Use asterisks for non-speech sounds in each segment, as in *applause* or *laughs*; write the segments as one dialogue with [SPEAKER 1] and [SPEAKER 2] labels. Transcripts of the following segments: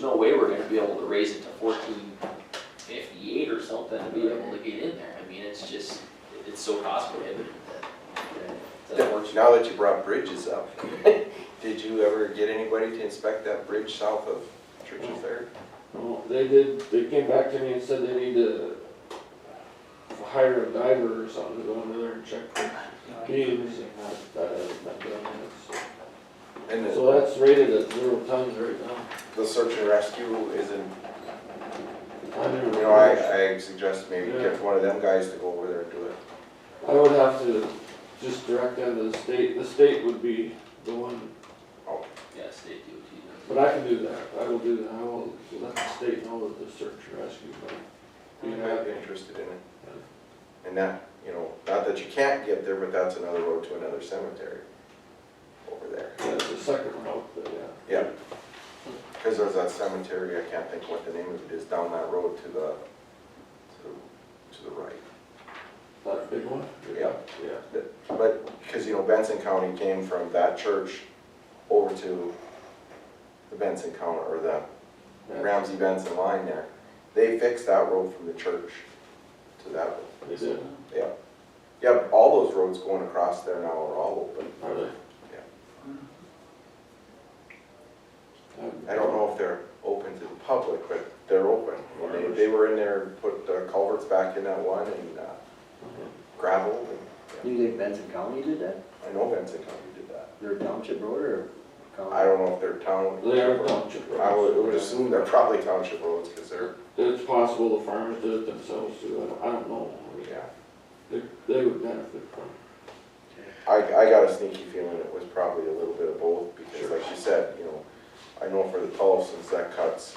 [SPEAKER 1] no way we're gonna be able to raise it to fourteen fifty-eight or something to be able to get in there. I mean, it's just, it's so cost prohibitive that, that works.
[SPEAKER 2] Now that you brought bridges up, *laughs* did you ever get anybody to inspect that bridge south of Church of Fair?
[SPEAKER 3] Well, they did, they came back to me and said they need to hire a diver or something to go under there and check for beams and that, that hasn't been done yet. so.
[SPEAKER 2] And the-
[SPEAKER 3] So that's rated at zero tons right now.
[SPEAKER 2] the search and rescue isn't,
[SPEAKER 3] I never-
[SPEAKER 2] you know, I, I suggest maybe get one of them guys to go over there and do it.
[SPEAKER 3] I would have to just direct them to the state, the state would be the one,
[SPEAKER 1] Yeah, state DOT.
[SPEAKER 3] but I can do that, I will do that, I will let the state know that the search and rescue, but.
[SPEAKER 2] You might be interested in it. And that, you know, not that you can't get there, but that's another road to another cemetery over there.
[SPEAKER 3] Yeah, the second route, but yeah,
[SPEAKER 2] Yeah. Cause there's that cemetery, I can't think what the name of it is, down that road to the, to, to the right.
[SPEAKER 3] that big one?
[SPEAKER 2] Yeah.
[SPEAKER 3] Yeah.
[SPEAKER 2] But, because, you know, Benson County came from that church over to the Benson County, or the
[SPEAKER 3] yeah.
[SPEAKER 2] Ramsey Benson line there. They fixed that road from the church to that, road.
[SPEAKER 3] They did,
[SPEAKER 2] yeah. Yep, all those roads going across there now are all open.
[SPEAKER 3] are they? Mm-hmm.
[SPEAKER 2] I don't know if they're open to the public, but they're open. And They, they were in there, put the culverts back in that one and uh,
[SPEAKER 3] Mm-hmm.
[SPEAKER 2] gravel, and
[SPEAKER 4] You think Benson County did that?
[SPEAKER 2] I know Benson County did that.
[SPEAKER 4] Their township road or county?
[SPEAKER 2] I don't know if they're town.
[SPEAKER 3] They are township roads.
[SPEAKER 2] I would, would assume they're probably township roads, because they're,
[SPEAKER 3] It's possible the farmers did it themselves too, I don't, I don't know. I mean,
[SPEAKER 2] yeah.
[SPEAKER 3] They, they would benefit from it.
[SPEAKER 2] I, I got a sneaky feeling it was probably a little bit of both, because like you said, you know, I know for the Tolson's, that cuts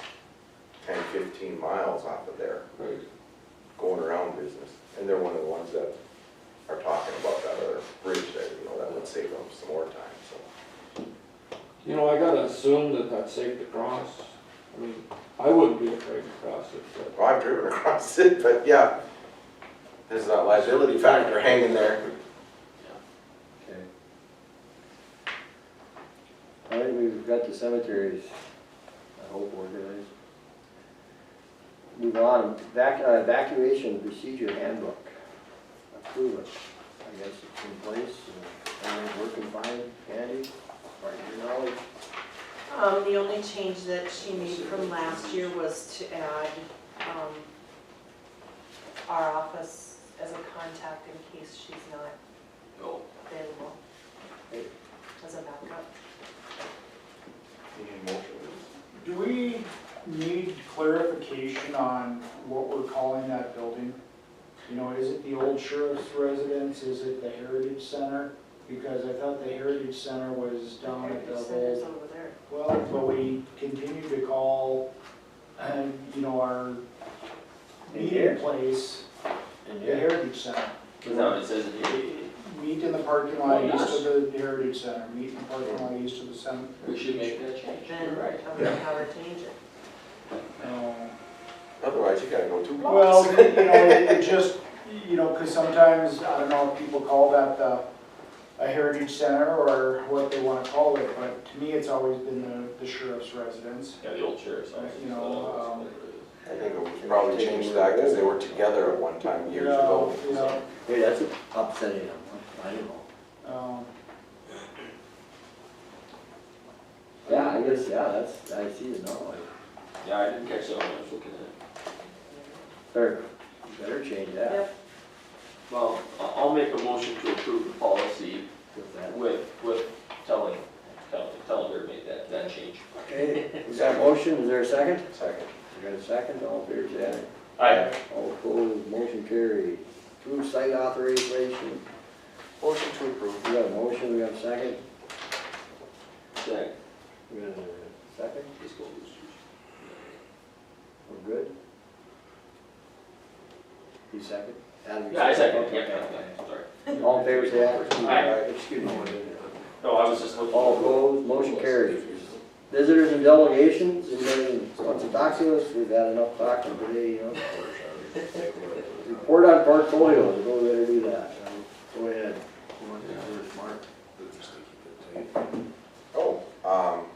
[SPEAKER 2] 10, 15 miles off of there,
[SPEAKER 3] right?
[SPEAKER 2] going around business. And they're one of the ones that are talking about that other bridge there, you know, that would save them some more time, so.
[SPEAKER 3] You know, I gotta assume that that's safe to cross. I mean, I wouldn't be afraid to cross it, but.
[SPEAKER 2] Well, I've driven *laughs* across it, but yeah, there's that liability factor hanging there.
[SPEAKER 4] Okay. I think we've got the cemeteries, I hope organized. Move on, Evac- uh, evacuation procedure handbook. Approve it. I guess it's in place, and everything's working fine, Andy, right your knowledge.
[SPEAKER 5] Um, the only change that she made from last year was to add, um, our office as a contact in case she's not
[SPEAKER 1] Oh,
[SPEAKER 5] available as a backup.
[SPEAKER 2] You need a motion.
[SPEAKER 6] Do we need clarification on what we're calling that building? You know, is it the old sheriff's residence, is it the Heritage Center? Because I thought the Heritage Center was down at the
[SPEAKER 5] Heritage Center's
[SPEAKER 6] old,
[SPEAKER 5] over there.
[SPEAKER 6] well, but we continue to call, um, you know, our
[SPEAKER 4] In here?
[SPEAKER 6] meeting place,
[SPEAKER 1] and
[SPEAKER 6] the
[SPEAKER 1] here,
[SPEAKER 6] Heritage Center.
[SPEAKER 1] no, it says in here,
[SPEAKER 6] Meet in the parking lot east of the Heritage Center, meet in the parking lot east of the center.
[SPEAKER 1] we should make that change.
[SPEAKER 5] Then I'm gonna have her change it.
[SPEAKER 6] Um,
[SPEAKER 2] Otherwise, you gotta go two blocks.
[SPEAKER 6] Well, you know, it it just, you know, because sometimes, I don't know if people call that the, a heritage center or what they want to call it, but to me, it's always been the- the sheriff's residence.
[SPEAKER 1] Yeah, the old sheriff's office.
[SPEAKER 6] You know, um,
[SPEAKER 2] I think it was probably changed that because they were together at one time years ago.
[SPEAKER 6] You know,
[SPEAKER 4] Hey, that's upsetting, I don't know.
[SPEAKER 6] you know, um,
[SPEAKER 4] Yeah, I guess, yeah, that's, I see it now, like,
[SPEAKER 1] Yeah, I didn't catch that when I was looking at it.
[SPEAKER 4] better, better change that
[SPEAKER 5] Yep,
[SPEAKER 1] Well, I- I'll make a motion to approve the policy
[SPEAKER 4] with that.
[SPEAKER 1] with, with telling, telling, telling her to make that, that change.
[SPEAKER 4] Okay, is that motion, is there a second?
[SPEAKER 2] Second.
[SPEAKER 4] We got a second, all fair say aye.
[SPEAKER 1] Aye.
[SPEAKER 4] All opposed, motion carried. Approved site authorization,
[SPEAKER 2] Motion to approve.
[SPEAKER 4] we got a motion, we got a second,
[SPEAKER 1] Second.
[SPEAKER 4] we got a second,
[SPEAKER 1] Please go Roosters.
[SPEAKER 4] we're good? You second? Adam, you
[SPEAKER 1] Yeah, I second,
[SPEAKER 4] Okay,
[SPEAKER 1] yeah,
[SPEAKER 4] okay,
[SPEAKER 1] yeah, sorry.
[SPEAKER 4] okay. All fair say aye.
[SPEAKER 1] Aye.
[SPEAKER 4] Excuse me.
[SPEAKER 1] No, I was just looking.
[SPEAKER 4] All opposed, motion carried. Visitors and delegations, anybody wants to talk to us, we've had enough talking today, you know? Report on portfolios, go ahead and do that, go ahead.
[SPEAKER 2] Oh, um,